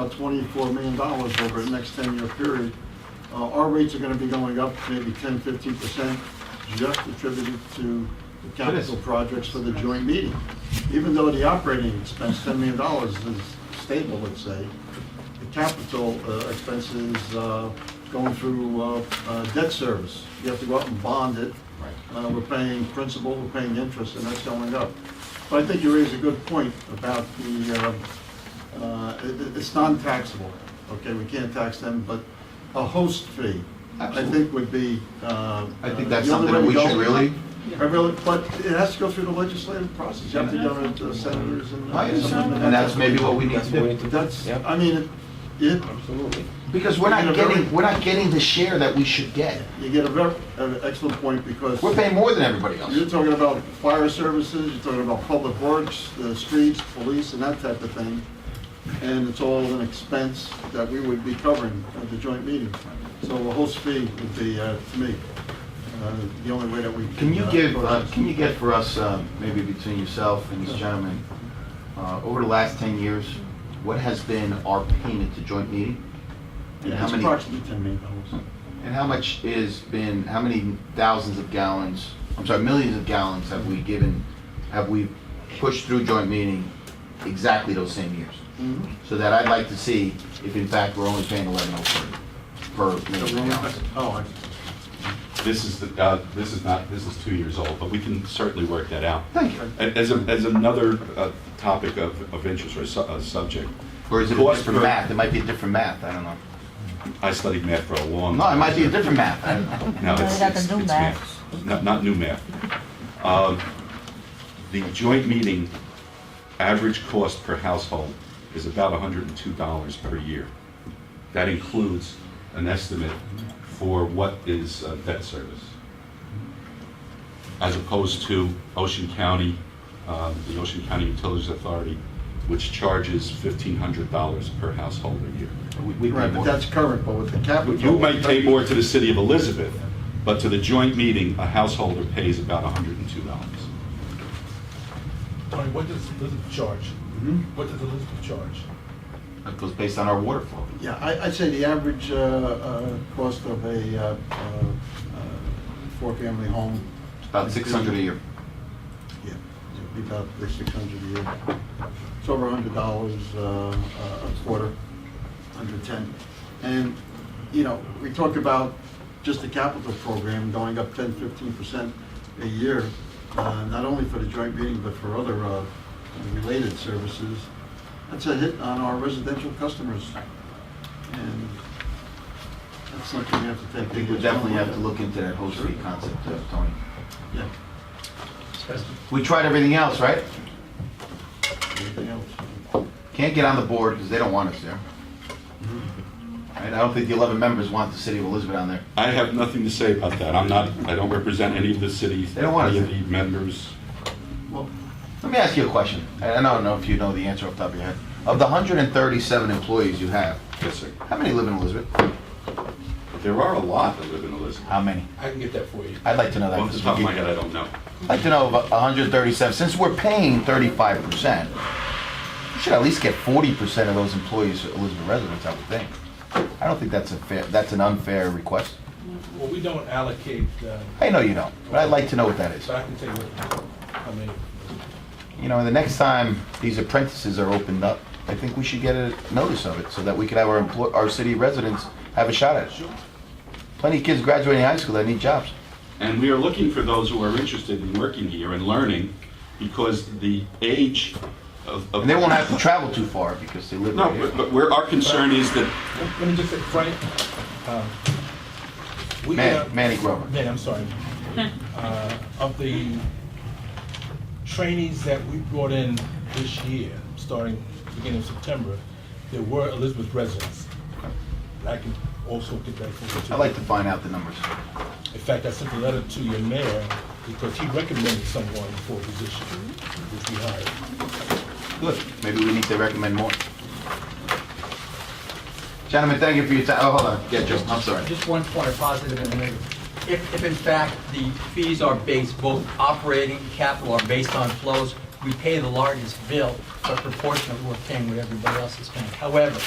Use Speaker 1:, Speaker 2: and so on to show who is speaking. Speaker 1: about $24 million over the next 10-year period. Uh, Our rates are going to be going up maybe 10, 15%, just attributed to the capital projects for the joint meeting. Even though the operating expense, $10 million, is stable, let's say, the capital uh, expenses uh, going through uh, uh, debt service. You have to go out and bond it. Uh, We're paying principal, we're paying interest, and that's going up. But I think you raise a good point about the, uh, uh, it- it- it's non-taxable, okay? We can't tax them, but a host fee, I
Speaker 2: Absolutely.
Speaker 1: think would be. uh, I
Speaker 2: I think that's something that we should really,
Speaker 1: I really, but it has to go through the legislative process. You have to go to the senators and.
Speaker 2: I understand, and that's maybe what we need to do.
Speaker 1: That's,
Speaker 3: Yep.
Speaker 1: I mean, it- it,
Speaker 3: Absolutely.
Speaker 2: Because we're
Speaker 1: In a
Speaker 2: not
Speaker 1: very-
Speaker 2: getting, we're not getting the share that we should get.
Speaker 1: You get a very, an excellent point because
Speaker 2: We're paying more than everybody
Speaker 1: you're
Speaker 2: else.
Speaker 1: talking about fire services, you're talking about public works, the streets, police, and that type of thing. And it's all an expense that we would be covering at the joint meeting. So a host fee would be, uh, to me, uh, the only way that we.
Speaker 2: Can you
Speaker 1: uh,
Speaker 2: give,
Speaker 1: go
Speaker 2: uh,
Speaker 1: about-
Speaker 2: can you get for us, um, maybe between yourself and this gentleman, uh, over the last 10 years, what has been our payment to joint meeting? And
Speaker 1: Yeah,
Speaker 2: how
Speaker 1: It's
Speaker 2: many,
Speaker 1: approximately ten million dollars.
Speaker 2: and how much is been, how many thousands of gallons, I'm sorry, millions of gallons have we given, have we pushed through joint meeting exactly those same years?
Speaker 1: Mhm.
Speaker 2: So that I'd like to see if in fact we're only paying 11.03 per million gallons.
Speaker 1: Oh,
Speaker 4: This is the, uh, this is not, this is two years old, but we can certainly work that out.
Speaker 2: Thank you.
Speaker 4: A- As, a- as another uh, topic of, of interest or su- uh, subject,
Speaker 2: Or is it a
Speaker 4: Cost
Speaker 2: different
Speaker 4: per-
Speaker 2: math? It might be a different math, I don't know.
Speaker 4: I studied math for a long.
Speaker 2: No, it
Speaker 4: time,
Speaker 2: might be a
Speaker 4: so-
Speaker 2: different math, I don't know.
Speaker 4: No, it's,
Speaker 5: What about
Speaker 4: it's
Speaker 5: the new
Speaker 4: it's
Speaker 5: math?
Speaker 4: math. Not, not new math. Um, The joint meeting average cost per household is about $102 per year. That includes an estimate for what is uh, debt service. As opposed to Ocean County, um, the Ocean County Utilities Authority, which charges $1,500 per household a year.
Speaker 2: We- we pay
Speaker 1: Right, but
Speaker 2: more.
Speaker 1: that's current, but with the capital.
Speaker 4: You might pay more to the city of Elizabeth, but to the joint meeting, a householder pays about $102.
Speaker 6: Tony, what does Elizabeth charge?
Speaker 1: Mhm.
Speaker 6: What does Elizabeth charge?
Speaker 2: That goes based on our water flow.
Speaker 1: Yeah, I, I'd say the average uh, uh, cost of a uh, uh, uh, four-family home.
Speaker 2: It's about 600 a year.
Speaker 1: Yeah, it'd be about six hundred a year. It's over a hundred dollars uh, a quarter, hundred ten. And, you know, we talk about just the capital program going up 10, 15 percent a year, uh, not only for the joint meeting, but for other uh, related services. That's a hit on our residential customers. And that's something we have to
Speaker 2: I
Speaker 1: take.
Speaker 2: think we definitely have to look into that host fee concept, uh, Tony.
Speaker 1: Yeah,
Speaker 2: We tried everything else, right?
Speaker 1: anything else?
Speaker 2: Can't get on the board because they don't want us there. Hmm. Right, I don't think the 11 members want the city of Elizabeth on there.
Speaker 4: I have nothing to say about that. I'm not, I don't represent any of the cities,
Speaker 2: They don't want
Speaker 4: any
Speaker 2: us.
Speaker 4: of the members.
Speaker 1: Well,
Speaker 2: Let me ask you a question, and I don't know if you know the answer off the top of your head. Of the 137 employees you have,
Speaker 4: Yes, sir.
Speaker 2: how many live in Elizabeth?
Speaker 4: There are a lot that live in Elizabeth.
Speaker 2: How many?
Speaker 6: I can get that for you.
Speaker 2: I'd like to know that.
Speaker 4: Off the top of my head, I don't know.
Speaker 2: I'd like to know about 137, since we're paying 35%, we should at least get 40% of those employees are Elizabeth residents, I would think. I don't think that's a fair, that's an unfair request.
Speaker 6: Well, we don't allocate, uh,
Speaker 2: I know you don't, but I'd like to know what that is.
Speaker 6: so I can tell you what, how many.
Speaker 2: You know, the next time these apprentices are opened up, I think we should get a notice of it so that we could have our employ, our city residents have a shot at it. Plenty of kids graduating high school that need jobs.
Speaker 4: And we are looking for those who are interested in working here and learning because the age of. of-
Speaker 2: And they won't have to travel too far because they live
Speaker 4: No,
Speaker 2: right
Speaker 4: but-
Speaker 2: here.
Speaker 4: but where our concern is that
Speaker 6: Let me just say, Frank, um, we
Speaker 2: Manny,
Speaker 6: have,
Speaker 2: Manny Grover.
Speaker 6: Manny, I'm sorry. Uh, Of the trainees that we brought in this year, starting beginning of September, there were Elizabeth residents. And I can also get that for you. too.
Speaker 2: I'd like to find out the numbers.
Speaker 6: In fact, I sent a letter to your mayor because he recommended someone for a position, which we hired.
Speaker 2: Good. Maybe we need to recommend more. Gentlemen, thank you for your time. Oh, hold on. Yeah, Joe, I'm sorry.
Speaker 7: Just one point of positive and negative. If, if in fact the fees are based, both operating and capital are based on flows, we pay the largest bill, but proportionately we're paying what everybody else is paying. However,